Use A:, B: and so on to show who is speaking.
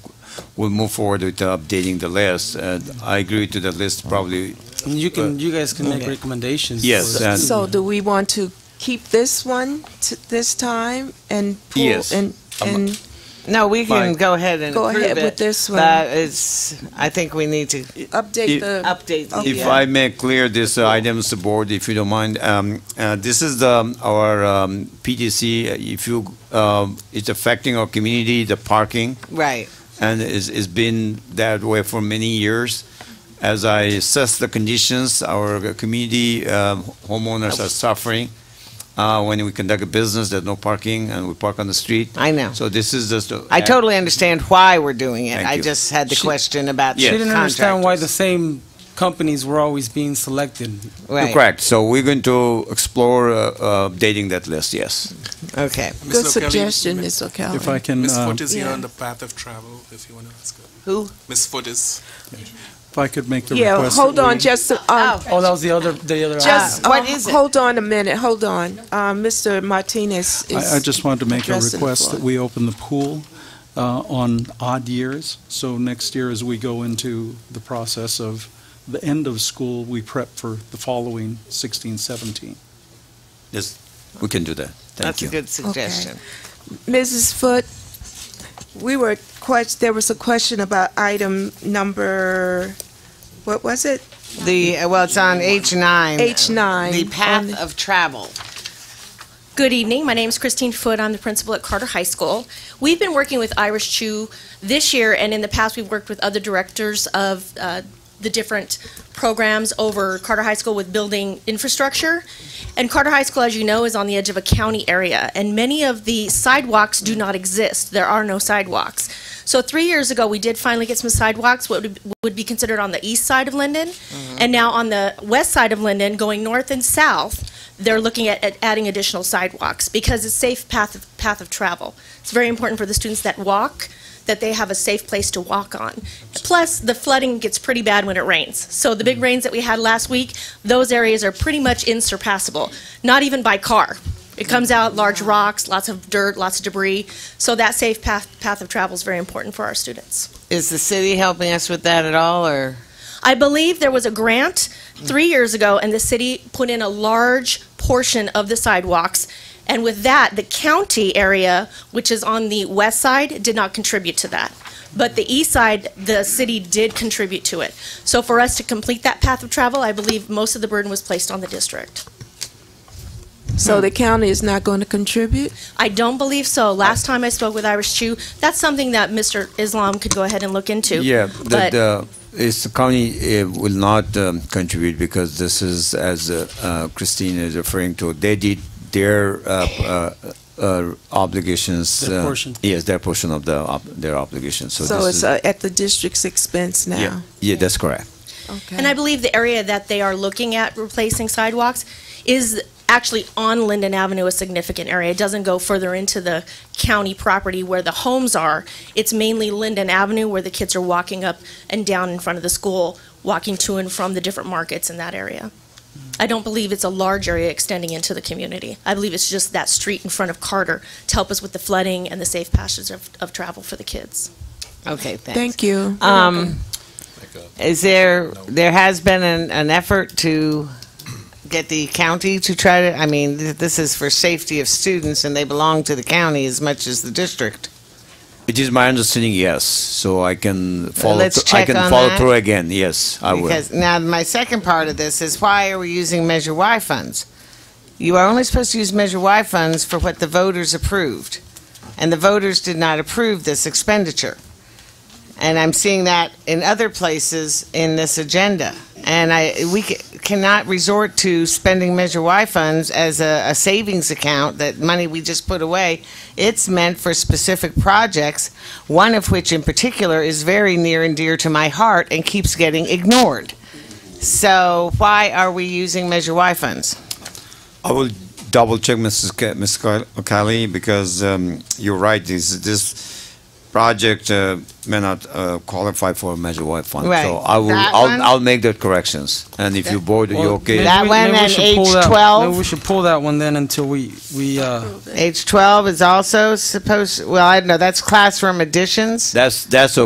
A: we'll move forward with updating the list. Uh, I agree to the list probably,
B: And you can, you guys can make
A: okay.
B: recommendations.
A: Yes,
B: for-
A: and-
C: So do we want to keep this one t- this time and pull?
A: Yes.
C: And,
A: Um,
C: and,
D: No, we can
A: Mike.
D: go ahead and
C: Go
D: approve
C: ahead
D: it,
C: with this one.
D: But it's, I think we need to
C: update
A: if-
C: the.
D: update the.
A: If
D: uh,
A: I may clear this uh, items the board, if you don't mind, um, uh, this is the, our um, PTC, uh, if you, um, it's affecting our community, the parking,
D: Right,
A: and it's, it's been that way for many years. As I assess the conditions, our community um, homeowners are suffering. Uh, When we conduct a business, there's no parking, and we park on the street.
D: I know.
A: So this is just. a-
D: I totally understand why we're doing it.
A: Thank
D: I
A: you.
D: just had the
B: She-
D: question about
B: She didn't understand why the
D: contractors.
B: same companies were always being selected.
D: Right,
A: Correct, so we're going to explore uh, uh, updating that list, yes.
D: Okay.
C: Good
E: Ms. Locatelli,
C: suggestion,
E: m-
C: Ms. O'Callaghan.
F: If I can,
E: Ms.
F: uh,
E: Foot is here
C: yeah.
E: on the path of travel, if you want to ask her.
D: Who?
E: Ms. Foot is,
F: if I could make the
C: Yeah,
F: request.
C: hold
F: that we-
C: on, just, a- um,
B: Oh, that was the other, the other.
C: just,
D: Ah, what
C: uh,
D: is it?
C: hold on a minute, hold on. Uh, Mr. Martinez is.
F: I, I just wanted to make a
C: addressing the
F: request
C: floor.
F: that we open the pool uh, on odd years. So next year, as we go into the process of the end of school, we prep for the following 16, 17.
A: Yes, we can do that, thank
D: That's
A: you.
D: a good suggestion.
C: Mrs. Foot, we were, quest- there was a question about item number, what was it?
D: The, uh, well, it's on H9.
C: H9
D: The
C: on the-
D: path of travel.
G: Good evening. My name is Christine Foot. I'm the principal at Carter High School. We've been working with Irish Chew this year, and in the past, we've worked with other directors of uh, the different programs over Carter High School with building infrastructure. And Carter High School, as you know, is on the edge of a county area, and many of the sidewalks do not exist. There are no sidewalks. So three years ago, we did finally get some sidewalks, what would- would be considered on the east side of Linden, and now on the west side of Linden, going north and south, they're looking at, at adding additional sidewalks because it's safe path of, path of travel. It's very important for the students that walk that they have a safe place to walk on. Plus, the flooding gets pretty bad when it rains. So the big rains that we had last week, those areas are pretty much insurpassable, not even by car. It comes out large rocks, lots of dirt, lots of debris. So that safe path path of travel is very important for our students.
D: Is the city helping us with that at all, or?
G: I believe there was a grant three years ago, and the city put in a large portion of the sidewalks. And with that, the county area, which is on the west side, did not contribute to that. But the east side, the city did contribute to it. So for us to complete that path of travel, I believe most of the burden was placed on the district.
C: So
A: Hmm.
C: the county is not going to contribute?
G: I don't believe so. Last time I spoke with Irish Chew, that's something that Mr. Islam could go ahead and look into.
A: Yeah,
G: But-
A: that, uh, it's the county uh, will not um, contribute because this is, as uh, uh, Christine is referring to, they did their uh, uh, uh, obligations.
B: Their
A: uh,
B: portion.
A: Yes, their portion of the, ob- their obligations, so
C: So
A: this
C: it's
A: is.
C: uh, at the district's expense
A: Yeah,
C: now?
A: yeah, that's correct.
C: Okay.
G: And I believe the area that they are looking at replacing sidewalks is actually on Linden Avenue, a significant area. It doesn't go further into the county property where the homes are. It's mainly Linden Avenue where the kids are walking up and down in front of the school, walking to and from the different markets in that area. I don't believe it's a large area extending into the community. I believe it's just that street in front of Carter to help us with the flooding and the safe passage of, of travel for the kids.
D: Okay, thanks.
C: Thank you.
D: Um, is there, there has been an, an effort to get the county to try to, I mean, th- this is for safety of students and they belong to the county as much as the district.
A: It is my understanding, yes, so I can follow,
D: let's
A: thr- I
D: check
A: can
D: on
A: follow
D: that.
A: through again, yes, I will.
D: Because, now, my second part of this is why are we using Measure Y funds? You are only supposed to use Measure Y funds for what the voters approved. And the voters did not approve this expenditure. And I'm seeing that in other places in this agenda. And I, we ca- cannot resort to spending Measure Y funds as a, a savings account, that money we just put away. It's meant for specific projects, one of which in particular is very near and dear to my heart and keeps getting ignored. So why are we using Measure Y funds?
A: I will double check, Mrs. Ca- Ms. Cal- O'Callaghan, because um, you're right, this, this project uh, may not uh, qualify for Measure Y fund.
D: Right.
A: So I will,
D: That one?
A: I'll, I'll make the corrections, and if you board, you
B: Well,
A: okay?
B: maybe
D: That
B: we-
D: one
B: maybe we
D: and
B: should pull that-
D: H12.
B: maybe We should pull that one then until we, we, uh,
D: Age 12 is also supposed, well, I don't know, that's classroom additions.
A: That's, that's